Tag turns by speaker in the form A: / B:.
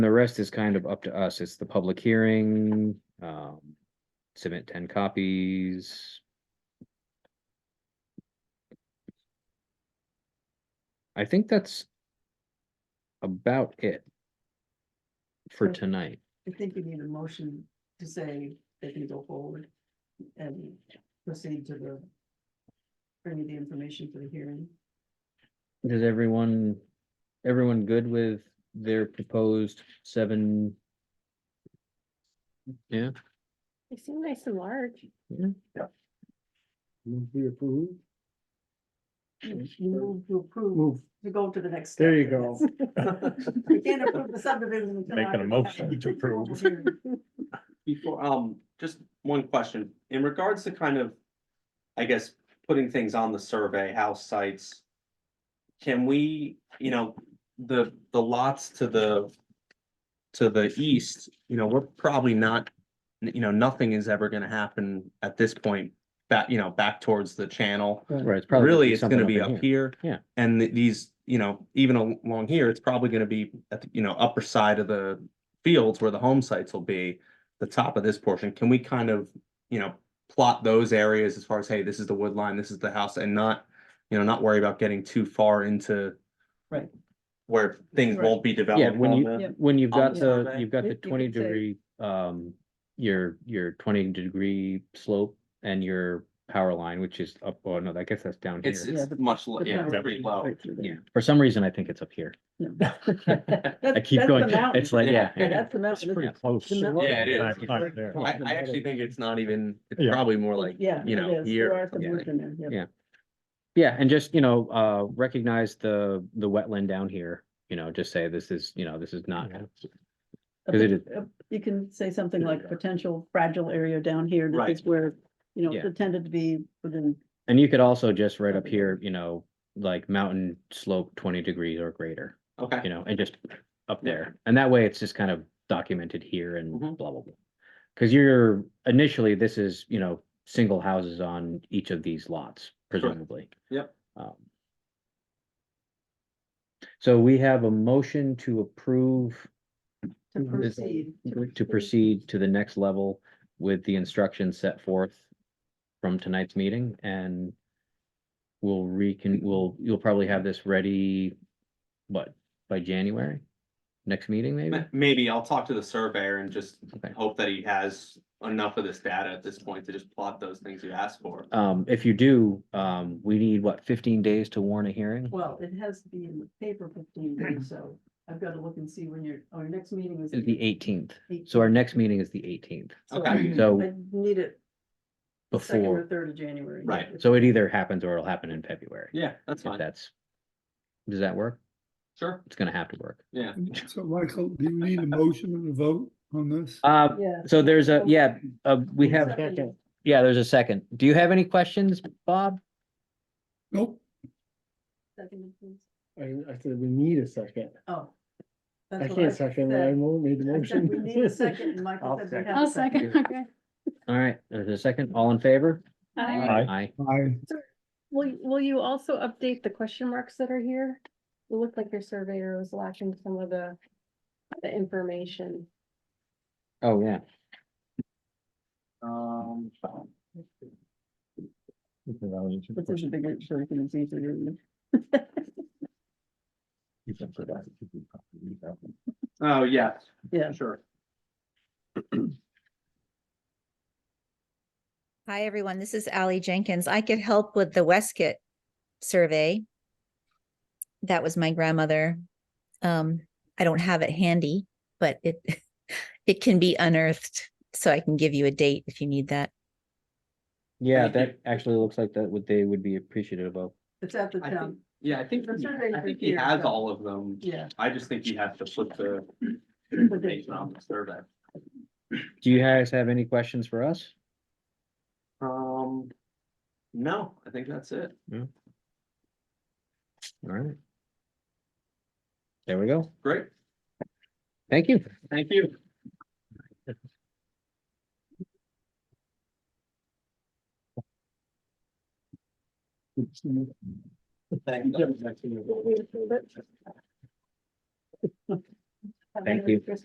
A: The rest is kind of up to us. It's the public hearing, um, submit ten copies. I think that's about it for
B: Okay.
A: tonight.
B: I think you need a motion to say they can go forward and proceed to the. Bring the information for the hearing.
A: Is everyone, everyone good with their proposed seven? Yeah,
C: They seem nice and large.
D: Move we approve.
B: You move to approve,
D: Move,
B: to go to the next.
D: there you
B: step.
D: go.
B: You can't approve the subdivision. until
E: Making a
B: after-
E: motion to approve.
F: Before, um, just one question, in regards to kind of, I guess, putting things on the survey, house sites. Can we, you know, the, the lots to the, to the east, you know, we're probably not, you know, nothing is ever gonna happen at this point. Back, you know, back towards the channel,
A: right, it's probably.
F: really, it's gonna
A: something
F: be
A: in
F: up here.
A: Yeah.
F: And th- these, you know, even al- along here, it's probably gonna be at, the, you know, upper side of the fields where the home sites will be. The top of this portion, can we kind of, you know, plot those areas as far as, hey, this is the wood line, this is the house, and not, you know, not worry about getting too far into.
B: Right.
F: Where things
B: Right.
F: won't be
A: Yeah,
F: developed.
A: when
F: on
A: you,
F: the-
A: when you've
F: on
A: got
F: the
A: the,
F: survey.
A: you've got
B: You-
A: the
B: you could
A: twenty
B: say-
A: degree, um, your, your twenty degree slope and your power line, which is up, oh no, I guess that's down
F: It's,
A: here.
F: it's much, lo-
B: But
F: yeah,
B: no,
F: it's pretty low.
A: Yeah, for some reason, I think it's up here. I keep going, it's like, yeah.
B: Yeah,
F: Yeah.
B: that's the
E: It's
B: mountain.
E: pretty
B: isn't it?
E: close.
B: the middle.
F: Yeah, it is.
E: Not- not there.
F: I, I actually think it's not even, it's
E: Yeah.
F: probably more like,
B: Yeah.
F: you
B: it
F: know,
B: is. There
F: here.
B: are some
A: yeah.
B: woods in there, yeah.
A: Yeah. Yeah, and just, you know, uh, recognize the, the wetland down here, you know, just say this is, you know, this is not,
B: A
A: 'Cause it
B: pot- a- You can say something like potential fragile area down here,
F: Right.
B: this is where, you know,
A: Yeah.
B: it's tended to be within,
A: and you could also just right up here, you know, like mountain slope twenty degrees or greater,
F: Okay.
A: you know, and just up there. And that way, it's just kind of documented here and blah,
F: Mhm.
A: blah, blah. Because you're initially, this is, you know, single houses on each of these lots presumably.
F: Yep.
A: Um, So we have a motion to approve
B: to
D: Mhm.
A: Mm-hmm. Is-
B: proceed.
A: to proceed to the next level with the instructions set forth from tonight's meeting and we'll recon, we'll, you'll probably have this ready, what, by January? Next meeting, maybe?
F: Ma- Maybe I'll talk to the surveyor and just
A: Okay.
F: hope that he has enough of this data at this point to just plot those things you asked for.
A: Um, if you do, um, we need what, fifteen days to warn a hearing?
B: Well, it has to be in the paper fifteen days, so I've got to look and see when your, our next meeting is.
A: Is the eighteenth.
B: Eight-
A: So our next meeting is the eighteenth,
B: so
F: Okay.
A: so
B: I need it the second or
A: before,
B: third of January.
F: Right.
A: so it either happens or it'll happen in February.
F: Yeah, that's
A: If
F: fine.
A: that's, does that work?
F: Sure,
A: It's gonna have to work.
F: yeah.
D: So Michael, do you need a motion and a vote on this?
A: Uh,
B: Yeah.
A: so there's a, yeah, uh, we have.
B: Second.
A: Yeah, there's a second. Do you have any questions, Bob?
D: Nope.
B: Second, please.
D: I, I said we need a second.
B: Oh.
D: I
B: That's what
D: can't second, I
B: said.
D: mo- made the
B: I said
D: motion.
B: We need a second, and Michael
D: I'll
B: said we
D: second.
B: have.
C: I'll second, okay.
A: All right, there's a second. All in favor?
C: Hi.
E: Aye.
A: Aye.
D: Aye.
C: Will, will you also update the question marks that are here? It looked like your surveyor was lacking some of the, the information.
A: Oh, yeah.
F: Um,
B: Which is a big, so we can see through.
F: oh, yeah.
B: Yeah.
F: Sure.
G: Hi, everyone. This is Ally Jenkins. I could help with the Westcott survey. That was my grandmother. Um, I don't have it handy, but it, it can be unearthed. So I can give you a date if you need that.
A: Yeah,
F: Thank you.
A: that actually looks like that what they would be appreciative of.
B: It's at the
F: I think,
B: town,
F: yeah, I think,
B: The
F: he-
B: survey
F: I
B: for
F: think he
B: here,
F: has
B: so-
F: all of them.
B: yeah.
F: I just think he has to put the information on the survey.
A: Do you guys have any questions for us?
F: Um, no, I think that's it.
A: All right. There we go.
F: Great,
A: Thank you.
F: thank you. Thank you.
B: Thank you.